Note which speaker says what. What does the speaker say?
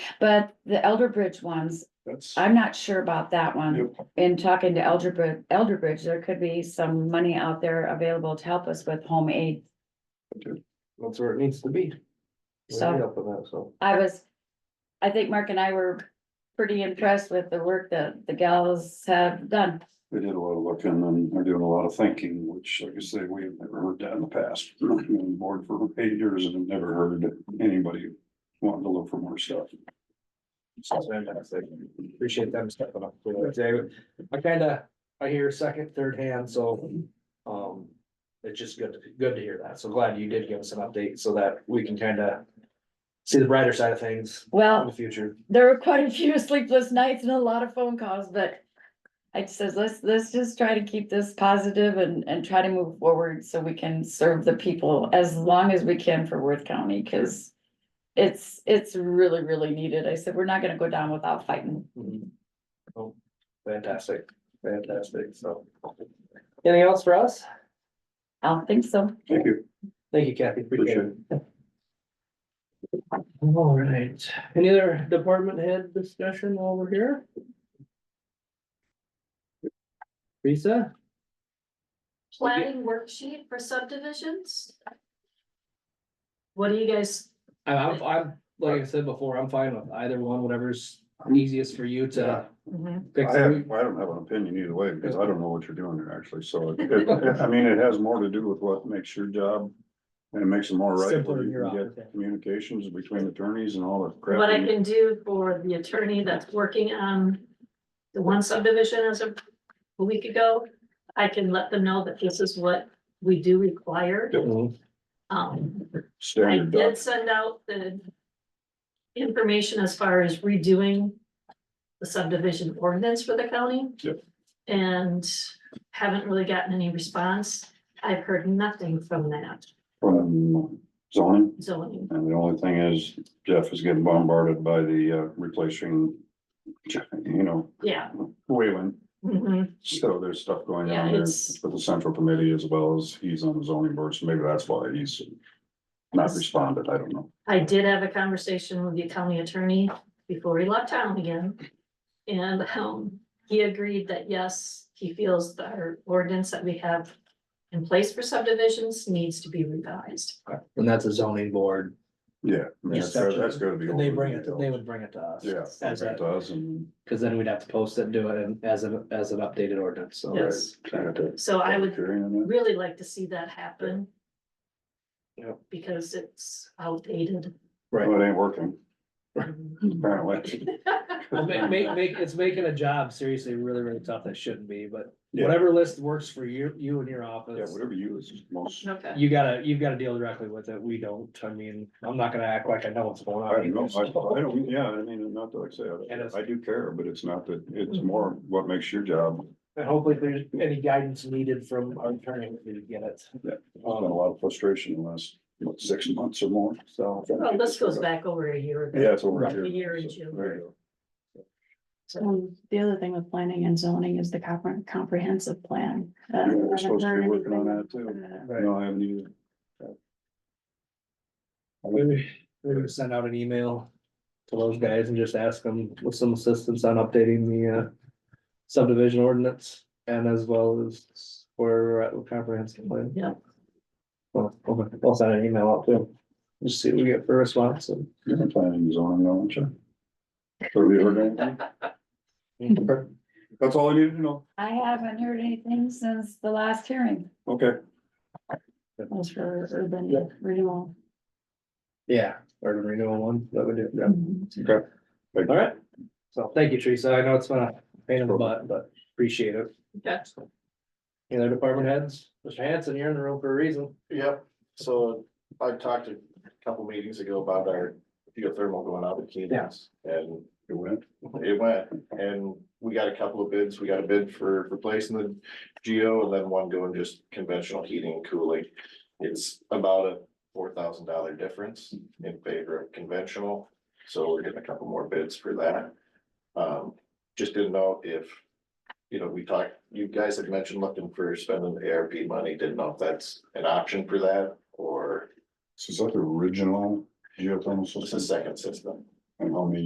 Speaker 1: But the Elderbridge ones,
Speaker 2: That's.
Speaker 1: I'm not sure about that one.
Speaker 2: Yep.
Speaker 1: In talking to Elderbridge, Elderbridge, there could be some money out there available to help us with home aid.
Speaker 3: That's where it needs to be. We
Speaker 1: So-
Speaker 3: need help with that, so.
Speaker 1: I was, I think Mark and I were pretty impressed with the work that the gals have done.
Speaker 2: They did a lot of looking and they're doing a lot of thinking, which like I say, we have never heard that in the past. We've been on board for eight years and have never heard anybody wanting to look for more stuff.
Speaker 3: That's fantastic. Appreciate them stepping up. You know, David, I kinda, I hear second, third hand, so, um, it's just good, good to hear that. So glad you did give us an update so that we can kinda see the brighter side of things in the
Speaker 1: Well,
Speaker 3: future.
Speaker 1: there were quite a few sleepless nights and a lot of phone calls, but I says, let's, let's just try to keep this positive and, and try to move forward so we can serve the people as long as we can for Worth County, cause it's, it's really, really needed. I said, we're not gonna go down without fighting.
Speaker 3: Mhm. Oh, Fantastic, fantastic, so. Anything else for us?
Speaker 1: I don't think so.
Speaker 2: Thank you.
Speaker 3: Thank you, Kathy, appreciate it. All right, any other department head discussion while we're here? Lisa?
Speaker 4: planning worksheet for subdivisions? What do you guys,
Speaker 3: I- I'm, I'm, like I said before, I'm fine with either one, whatever's easiest for you to fix.
Speaker 2: I have, I don't have an opinion either way, because I don't know what you're doing there actually, so it- it, I mean, it has more to do with what makes your job. And it makes it more right,
Speaker 3: Simpler
Speaker 2: where
Speaker 3: in
Speaker 2: you
Speaker 3: your
Speaker 2: can
Speaker 3: office, yeah.
Speaker 2: get communications between attorneys and all that crap.
Speaker 4: what I can do for the attorney that's working on the one subdivision as of a week ago, I can let them know that this is what we do require.
Speaker 3: Mhm.
Speaker 4: Um, I
Speaker 2: Standard doc-
Speaker 4: did send out the information as far as redoing the subdivision ordinance for the county.
Speaker 2: Yep.
Speaker 4: And haven't really gotten any response. I've heard nothing from that
Speaker 2: from zoning.
Speaker 4: zoning.
Speaker 2: And the only thing is Jeff is getting bombarded by the uh, replacing, you know,
Speaker 4: Yeah.
Speaker 2: Wayland.
Speaker 4: mhm.
Speaker 2: So there's stuff going
Speaker 4: Yeah,
Speaker 2: on there
Speaker 4: it's-
Speaker 2: with the central committee as well as he's on the zoning board, so maybe that's why he's not responded. I don't know.
Speaker 4: I did have a conversation with the county attorney before he left town again. And um, he agreed that yes, he feels that our ordinance that we have in place for subdivisions needs to be revised.
Speaker 3: And that's a zoning board,
Speaker 2: Yeah, I mean, that's, that's gotta be.
Speaker 3: and they bring it, they
Speaker 2: over
Speaker 3: would bring it to us.
Speaker 2: the hill. Yeah,
Speaker 3: As
Speaker 2: it
Speaker 3: a,
Speaker 2: does and.
Speaker 3: cause then we'd have to post it, do it in- as a, as an updated ordinance, so.
Speaker 4: Yes.
Speaker 3: Trying to-
Speaker 4: So I would
Speaker 2: Carrying on that.
Speaker 4: really like to see that happen.
Speaker 3: Yep.
Speaker 4: Because it's outdated.
Speaker 3: Right,
Speaker 2: Well, it ain't working, Mm-hmm. apparently.
Speaker 3: well, make, make, make, it's making a job seriously really, really tough that shouldn't be, but
Speaker 2: Yeah.
Speaker 3: whatever list works for you, you and your
Speaker 2: Yeah,
Speaker 3: office.
Speaker 2: whatever you is most,
Speaker 4: Okay.
Speaker 3: You gotta, you've gotta deal directly with it, we don't, I mean, I'm not gonna act like I know what's going
Speaker 2: I
Speaker 3: on.
Speaker 2: don't know,
Speaker 3: either,
Speaker 2: I,
Speaker 3: so.
Speaker 2: I don't, yeah, I mean, not that like I say,
Speaker 3: And it's-
Speaker 2: I- I do care, but it's not that, it's
Speaker 4: Mm-hmm.
Speaker 2: more what makes your job
Speaker 3: And hopefully if there's any guidance needed from our attorney, we can get it.
Speaker 2: Yeah. There's
Speaker 4: Um,
Speaker 2: been a lot of frustration in the last, what, six months or more, so.
Speaker 4: Well, this goes back over a year ago.
Speaker 2: Yeah, it's over
Speaker 3: Right.
Speaker 2: here.
Speaker 4: A year in
Speaker 2: So,
Speaker 4: June.
Speaker 2: there you
Speaker 5: Um, the other thing with planning and zoning is the compre- comprehensive plan.
Speaker 2: go.
Speaker 5: Uh,
Speaker 2: Yeah, We're supposed to be
Speaker 5: haven't heard
Speaker 2: working on
Speaker 5: anything.
Speaker 2: that too.
Speaker 5: Uh,
Speaker 2: No, I haven't either.
Speaker 3: Maybe, maybe we send out an email to those guys and just ask them with some assistance on updating the uh subdivision ordinance and as well as where we're at with comprehensive plan.
Speaker 4: Yeah.
Speaker 3: Well, okay, I'll send an email out to them, just see what we get for a response and.
Speaker 2: You've been planning zoning, aren't you? Have you heard anything? That's all I needed to know.
Speaker 1: I haven't heard anything since the last hearing.
Speaker 2: Okay.
Speaker 5: That was for
Speaker 3: Yeah.
Speaker 5: urban renewal.
Speaker 3: Yeah, urban renewal one, that would do, yeah.
Speaker 2: Okay. Thank you.
Speaker 3: All right. So thank you, Teresa. I know it's been a pain in the butt, but appreciate it.
Speaker 4: Okay.
Speaker 3: Any other department heads? Mr. Hanson, you're in the room for a reason.
Speaker 6: Yep, so I talked a couple meetings ago about our geothermal going out at Keenan's. And
Speaker 2: You went?
Speaker 6: it went, and we got a couple of bids, we got a bid for replacing the geo and then one going just conventional heating and cooling. It's about a four thousand dollar difference in favor of conventional, so we're getting a couple more bids for that. Um, just didn't know if, you know, we talked, you guys had mentioned looking for spending ARP money, didn't know if that's an option for that or
Speaker 2: So Is that the original geothermal
Speaker 6: it's a
Speaker 2: system?
Speaker 6: second system.
Speaker 2: And how many